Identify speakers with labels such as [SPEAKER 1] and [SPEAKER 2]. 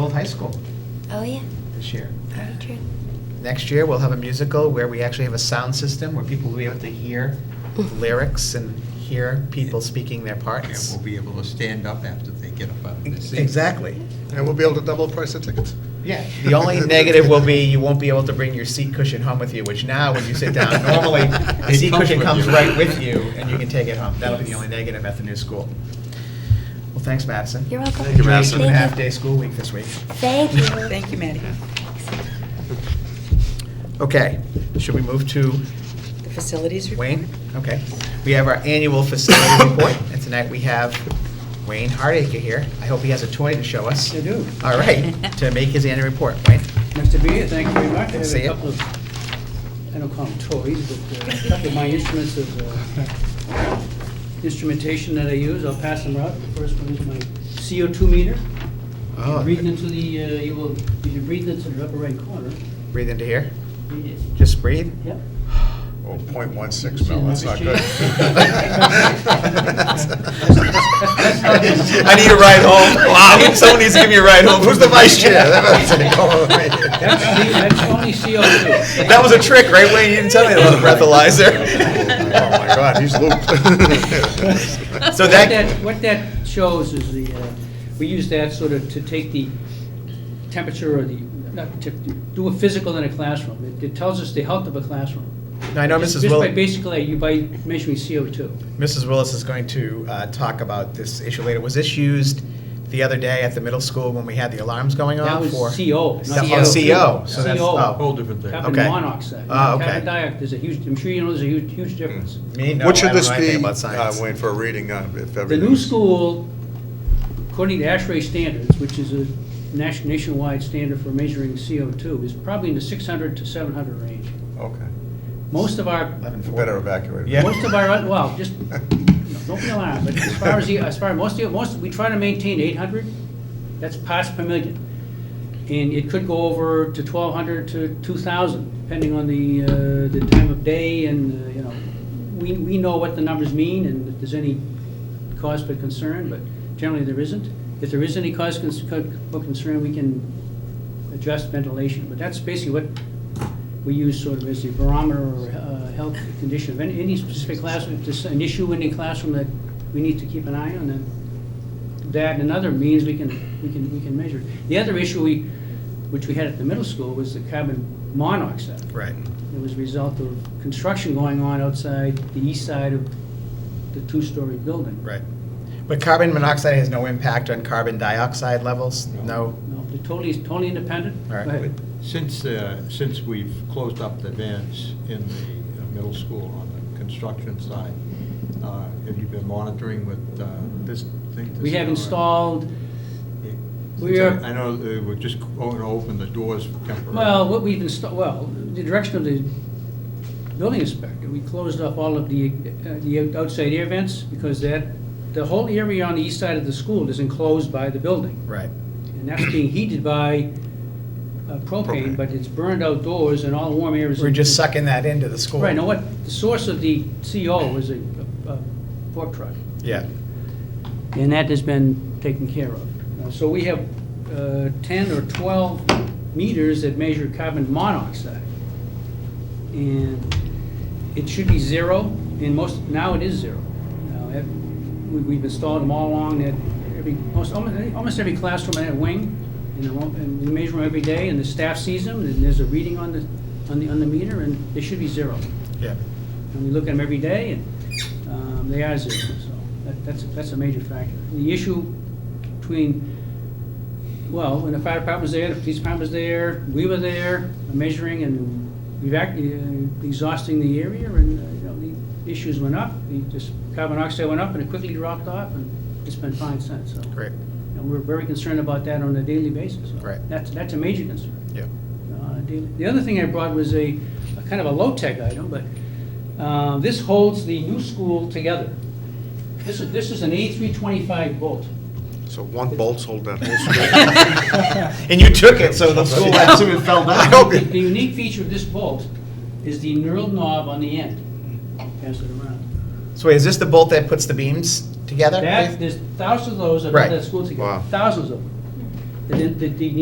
[SPEAKER 1] Old High School
[SPEAKER 2] Oh, yeah,
[SPEAKER 1] this year.
[SPEAKER 2] very true.
[SPEAKER 1] Next year, we'll have a musical where we actually have a sound system where people will be able to hear lyrics and hear people speaking their
[SPEAKER 3] And
[SPEAKER 1] parts.
[SPEAKER 3] we'll be able to stand up after they get up out of their seats.
[SPEAKER 1] Exactly.
[SPEAKER 4] And we'll be able to double price the tickets.
[SPEAKER 1] Yeah. The only negative will be you won't be able to bring your seat cushion home with you, which now when you sit down, normally the
[SPEAKER 3] It
[SPEAKER 1] seat
[SPEAKER 3] comes
[SPEAKER 1] cushion
[SPEAKER 3] with
[SPEAKER 1] comes
[SPEAKER 3] you.
[SPEAKER 1] right with you and you can take it home. That'll be the only negative at the new school. Well, thanks, Madison.
[SPEAKER 2] You're welcome.
[SPEAKER 4] Thank you, Madison.
[SPEAKER 1] Two and a half
[SPEAKER 2] Thank you.
[SPEAKER 1] day school week this week.
[SPEAKER 2] Thank you.
[SPEAKER 5] Thank you, Maddie.
[SPEAKER 1] Okay, should we move to
[SPEAKER 5] The facilities report?
[SPEAKER 1] Wayne? Okay. We have our annual facility report, and tonight we have Wayne Hardacre here. I hope he has a toy to show us.
[SPEAKER 6] I do.
[SPEAKER 1] All right, to make his annual report. Wayne?
[SPEAKER 6] Nice to be here, thank you very much. I have
[SPEAKER 1] See
[SPEAKER 6] a
[SPEAKER 1] ya.
[SPEAKER 6] couple of, I don't call them toys, but uh, a couple of my instruments of uh, instrumentation that I use, I'll pass them out. The first one is my CO2 meter.
[SPEAKER 1] Oh.
[SPEAKER 6] Breathing into the, uh, you will, you can breathe into the upper right corner.
[SPEAKER 1] Breathe into here.
[SPEAKER 6] Breathe it.
[SPEAKER 1] Just breathe.
[SPEAKER 6] Yep.
[SPEAKER 4] Oh, point one six mil, that's not good.
[SPEAKER 1] I need a ride home. Wow, someone needs to give me a ride home. Who's the vice chair?
[SPEAKER 6] That's that's only CO2.
[SPEAKER 1] That was a trick, right, Wayne? You didn't tell me that was a
[SPEAKER 4] Oh, my
[SPEAKER 1] breathalyzer.
[SPEAKER 4] God, he's looped.
[SPEAKER 1] So
[SPEAKER 6] What
[SPEAKER 1] that-
[SPEAKER 6] What that shows is the, uh, we use that sort of to take the temperature or the, not, to do a physical in a classroom. It- It tells us the health of a classroom.
[SPEAKER 1] I know
[SPEAKER 6] Just-
[SPEAKER 1] Mrs.
[SPEAKER 6] Just by
[SPEAKER 1] Willis,
[SPEAKER 6] basically, you by measuring CO2.
[SPEAKER 1] Mrs. Willis is going to uh, talk about this issue later. Was this used the other day at the middle school when we had the alarms going
[SPEAKER 6] That
[SPEAKER 1] off?
[SPEAKER 6] was
[SPEAKER 1] or-
[SPEAKER 6] CO.
[SPEAKER 1] That-
[SPEAKER 6] not
[SPEAKER 1] Oh, CO.
[SPEAKER 6] CO2.
[SPEAKER 1] So that's,
[SPEAKER 6] CO.
[SPEAKER 1] oh.
[SPEAKER 3] Whole different thing.
[SPEAKER 6] Carbon
[SPEAKER 1] Okay.
[SPEAKER 6] monoxide.
[SPEAKER 1] Ah, okay.
[SPEAKER 6] Carbon dioxide, there's a huge, I'm sure you know there's a huge, huge difference.
[SPEAKER 1] Me? No,
[SPEAKER 4] What
[SPEAKER 1] I
[SPEAKER 4] should
[SPEAKER 1] don't
[SPEAKER 4] this
[SPEAKER 1] know anything
[SPEAKER 4] be,
[SPEAKER 1] about
[SPEAKER 4] uh,
[SPEAKER 1] science.
[SPEAKER 4] Wayne, for a reading, uh, if
[SPEAKER 6] The
[SPEAKER 4] everything?
[SPEAKER 6] new school, according to ASHRAE standards, which is a nation- nationwide standard for measuring CO2, is probably in the 600 to 700 range.
[SPEAKER 4] Okay,
[SPEAKER 6] Most of our,
[SPEAKER 1] 11:40.
[SPEAKER 4] we better evacuate.
[SPEAKER 1] Yeah.
[SPEAKER 6] most of our, well, just, don't be alarmed, but as far as, the as far, as most, of the- most, we try to maintain 800, that's parts per million. And it could go over to 1,200 to 2,000, depending on the, uh, the time of day and, uh, you know, we, we know what the numbers mean and if there's any cause for concern, but generally there isn't. If there is any cause cons- co- for concern, we can adjust ventilation, but that's basically what we use sort of as the barometer or uh, health condition of any any specific classroom, if there's an issue in the classroom that we need to keep an eye on, then that and other means we can, we can, we can measure. The other issue we, which we had at the middle school was the carbon monoxide.
[SPEAKER 1] Right.
[SPEAKER 6] It was a result of construction going on outside the east side of the two-story building.
[SPEAKER 1] Right. But carbon monoxide has no impact on carbon dioxide levels? No?
[SPEAKER 6] No, they're totally, totally independent.
[SPEAKER 1] All right.
[SPEAKER 6] Go ahead.
[SPEAKER 3] Since, uh, since we've closed up the vents in the uh, middle school on the construction side, uh, have you been monitoring with uh, this thing? to
[SPEAKER 6] We
[SPEAKER 3] see
[SPEAKER 6] have
[SPEAKER 3] how-
[SPEAKER 6] installed, we are-
[SPEAKER 3] I know, uh, we're just going to open the doors temporarily.
[SPEAKER 6] well, what we've installed, well, the direction of the building inspector, we closed off all of the, uh, the outside air vents because that, the whole area on the east side of the school is enclosed by the building.
[SPEAKER 1] Right.
[SPEAKER 6] And that's being heated by uh, propane,
[SPEAKER 4] Propane.
[SPEAKER 6] but it's burned outdoors and all the warm air is.
[SPEAKER 1] We're just sucking that into the school.
[SPEAKER 6] Right, now what, the source of the CO was a, a a fork truck.
[SPEAKER 1] Yeah.
[SPEAKER 6] And that has been taken care of. Uh, So we have uh, 10 or 12 meters that measure carbon monoxide. And it should be zero, and most, now it is zero. Now, ev- we- We've installed them all along, at every, most, almo- almost every classroom in that wing, and they're all- and we measure them every day, and the staff sees them, and there's a reading on the, on the, on the meter, and they should be zero.
[SPEAKER 1] Yeah.
[SPEAKER 6] And we look at them every day, and um, they are zero, so that- that's, that's a major factor. The issue between, well, when the fire department was there, the police department was there, we were there, measuring and evac, uh, exhausting the area, and, uh, you know, the issues went up, the, just carbon dioxide went up, and it quickly dropped off, and it's been fine since, so.
[SPEAKER 1] Great.
[SPEAKER 6] And we're very concerned about that on a daily basis. so
[SPEAKER 1] Right.
[SPEAKER 6] That's, that's a major concern
[SPEAKER 1] Yeah.
[SPEAKER 6] on a daily- Uh, The other thing I brought was a, a kind of a low-tech item, but uh, this holds the new school together. This is, this is an A325 bolt.
[SPEAKER 4] So one bolt's hold that whole school.
[SPEAKER 1] And you took it, so the school had to have fell
[SPEAKER 6] The
[SPEAKER 1] down.
[SPEAKER 6] the unique feature of this bolt is the knurled knob on the end. Pass it around.
[SPEAKER 1] So wait, is this the bolt that puts the beams together?
[SPEAKER 6] That, there's thousands of those that
[SPEAKER 1] Right.
[SPEAKER 6] hold that school
[SPEAKER 4] Wow.
[SPEAKER 6] together, thousands of them. the, the the